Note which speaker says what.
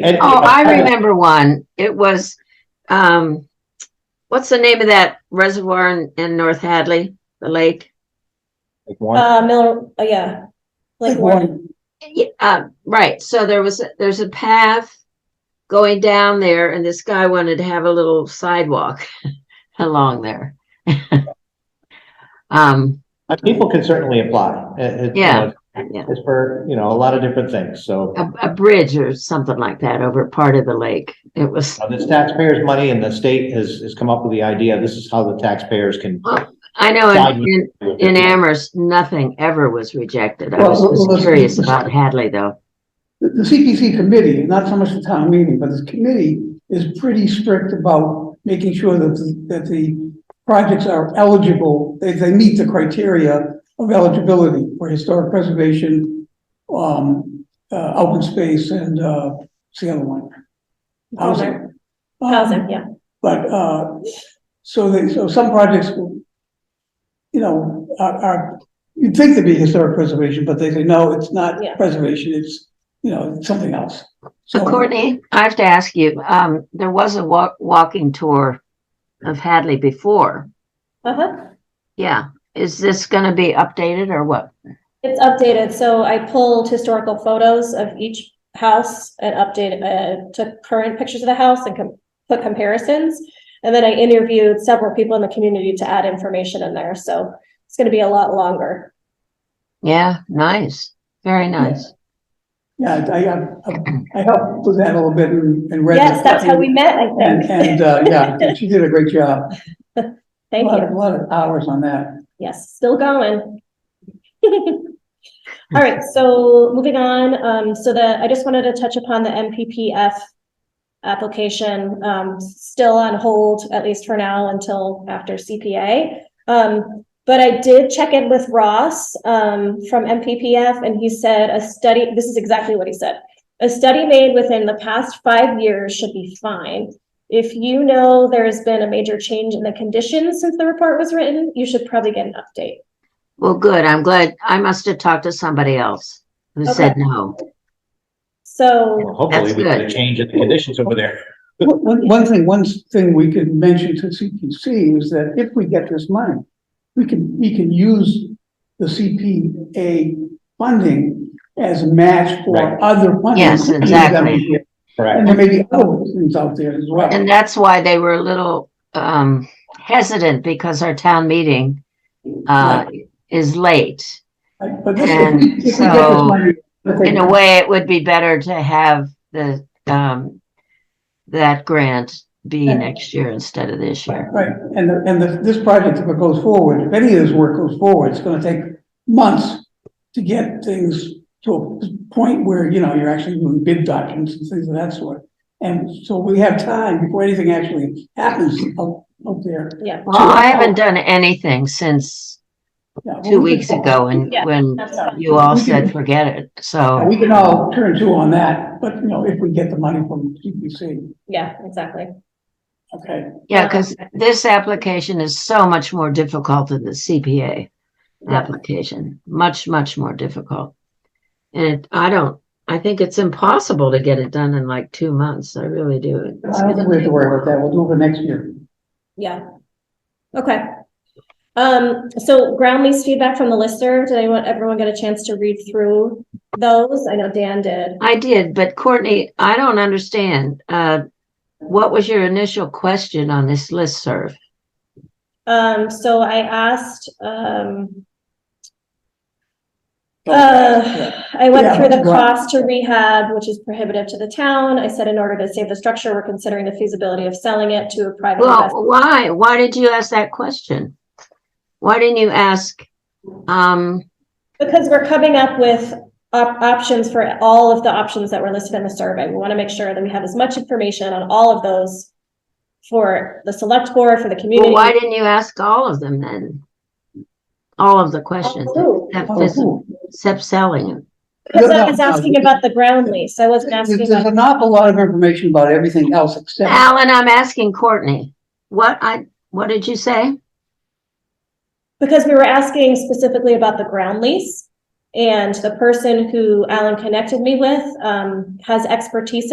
Speaker 1: And-
Speaker 2: Oh, I remember one. It was, um, what's the name of that reservoir in, in North Hadley, the lake?
Speaker 1: Like one,
Speaker 3: Uh, Miller, oh, yeah. Like one.
Speaker 2: Yeah, uh, right, so there was, there's a path going down there and this guy wanted to have a little sidewalk along there. Um,
Speaker 1: Uh, people can certainly apply. It- it- you
Speaker 2: Yeah.
Speaker 1: know,
Speaker 2: yeah,
Speaker 1: It's for, you know, a lot of different things, so.
Speaker 2: a, a bridge or something like that over part of the lake. It was,
Speaker 1: Uh, This taxpayers' money and the state has, has come up with the idea, this is how the taxpayers can.
Speaker 2: I know in, in, in Amherst, nothing ever was rejected. I was
Speaker 4: Well,
Speaker 2: was
Speaker 4: well,
Speaker 2: curious
Speaker 4: that's-
Speaker 2: about Hadley though.
Speaker 4: The, the CPC committee, not so much the town meeting, but this committee is pretty strict about making sure that, the- that the projects are eligible, they, they meet the criteria of eligibility for historic preservation, um, uh, open space and, uh, what's the other one?
Speaker 3: Housing,
Speaker 4: Um,
Speaker 3: housing, yeah.
Speaker 4: But, uh, so they, so some projects, you know, are, are, you'd think they'd be historic preservation, but they say, no, it's not
Speaker 3: Yeah.
Speaker 4: preservation, it's, you know, it's something else.
Speaker 2: So
Speaker 4: So-
Speaker 2: Courtney, I have to ask you, um, there was a walk, walking tour of Hadley before.
Speaker 3: Uh-huh.
Speaker 2: Yeah. Is this gonna be updated or what?
Speaker 3: It's updated, so I pulled historical photos of each house and updated, uh, took current pictures of the house and com- put comparisons. And then I interviewed several people in the community to add information in there, so it's gonna be a lot longer.
Speaker 2: Yeah, nice. Very nice.
Speaker 4: Yeah, I, I, I helped with that a little bit and, and read.
Speaker 3: Yes,
Speaker 4: it.
Speaker 3: that's how we met, I
Speaker 4: And,
Speaker 3: think.
Speaker 4: and, uh, yeah, she did a great job. A
Speaker 3: Thank
Speaker 4: lot of,
Speaker 3: you.
Speaker 4: a lot of hours on that.
Speaker 3: Yes, still going. All right, so moving on, um, so the, I just wanted to touch upon the MPPF application, um, still on hold, at least for now, until after CPA. Um, but I did check in with Ross, um, from MPPF, and he said a study, this is exactly what he said. A study made within the past five years should be fine. If you know there's been a major change in the conditions since the report was written, you should probably get an update.
Speaker 2: Well, good. I'm glad. I must have talked to somebody else who
Speaker 3: Okay.
Speaker 2: said no.
Speaker 3: So,
Speaker 1: Hopefully
Speaker 2: That's
Speaker 1: we get a
Speaker 2: good.
Speaker 1: change in the conditions over there.
Speaker 4: One, one- one thing, one thing we could mention to CPC is that if we get this money, we can, we can use the CPA funding as a match
Speaker 1: Right.
Speaker 4: for other funding.
Speaker 2: Yes,
Speaker 4: that we
Speaker 2: exactly.
Speaker 4: get. And
Speaker 1: Correct.
Speaker 4: there may be other things out there as well.
Speaker 2: And that's why they were a little, um, hesitant because our town meeting, uh, is late.
Speaker 4: Right, But this- if
Speaker 2: and
Speaker 4: we, if we get this
Speaker 2: so,
Speaker 4: money. I think-
Speaker 2: In a way, it would be better to have the, um, that grant be
Speaker 4: Yeah.
Speaker 2: next year instead of this year.
Speaker 4: Right, and, the- and the, this project, if it goes forward, if any of this work goes forward, it's gonna take months to get things to a point where, you know, you're actually doing bid documents and things of that sort. And so we have time before anything actually happens up, up there.
Speaker 3: yeah,
Speaker 2: Well, I haven't done anything since
Speaker 4: Yeah, well,
Speaker 2: two
Speaker 4: we can
Speaker 2: weeks
Speaker 4: all-
Speaker 2: ago and
Speaker 3: Yeah.
Speaker 2: when
Speaker 3: that's fine.
Speaker 2: you all said, forget it.
Speaker 4: yeah,
Speaker 2: So,
Speaker 4: We can all turn to on that, but, you know, if we get the money from CPC,
Speaker 3: yeah, exactly.
Speaker 4: okay,
Speaker 2: yeah, because this application is so much more difficult than the CPA application, much, much more difficult. And I don't, I think it's impossible to get it done in like two months. I really do. It's
Speaker 4: I don't think we have to worry about that, we'll do it for next year.
Speaker 3: Yeah. Okay. Um, so ground lease feedback from the lister. Did anyone, everyone get a chance to read through those? I know Dan did.
Speaker 2: I did, but Courtney, I don't understand. Uh, what was your initial question on this listserv?
Speaker 3: Um, so I asked, um, uh, I went
Speaker 4: Yeah,
Speaker 3: through the
Speaker 4: go on.
Speaker 3: cost to rehab, which is prohibitive to the town. I said in order to save the structure, we're considering the feasibility of selling it to a private investor.
Speaker 2: Well, why, why did you ask that question? Why didn't you ask, um,
Speaker 3: Because we're coming up with op- options for all of the options that were listed in the survey. We want to make sure that we have as much information on all of those for the select board, for the
Speaker 2: well,
Speaker 3: community.
Speaker 2: why didn't you ask all of them then? All of the questions,
Speaker 3: Oh,
Speaker 2: except
Speaker 4: Oh,
Speaker 2: this-
Speaker 4: cool.
Speaker 2: except selling it.
Speaker 3: Because
Speaker 4: No,
Speaker 3: I
Speaker 4: no,
Speaker 3: was
Speaker 4: no,
Speaker 3: asking
Speaker 4: because-
Speaker 3: about the ground lease. I wasn't
Speaker 4: There's
Speaker 3: asking,
Speaker 4: there's
Speaker 3: about-
Speaker 4: an awful lot of information about everything else except.
Speaker 2: Alan, I'm asking Courtney, what I, what did you say?
Speaker 3: because we were asking specifically about the ground lease. And the person who Alan connected me with, um, has expertise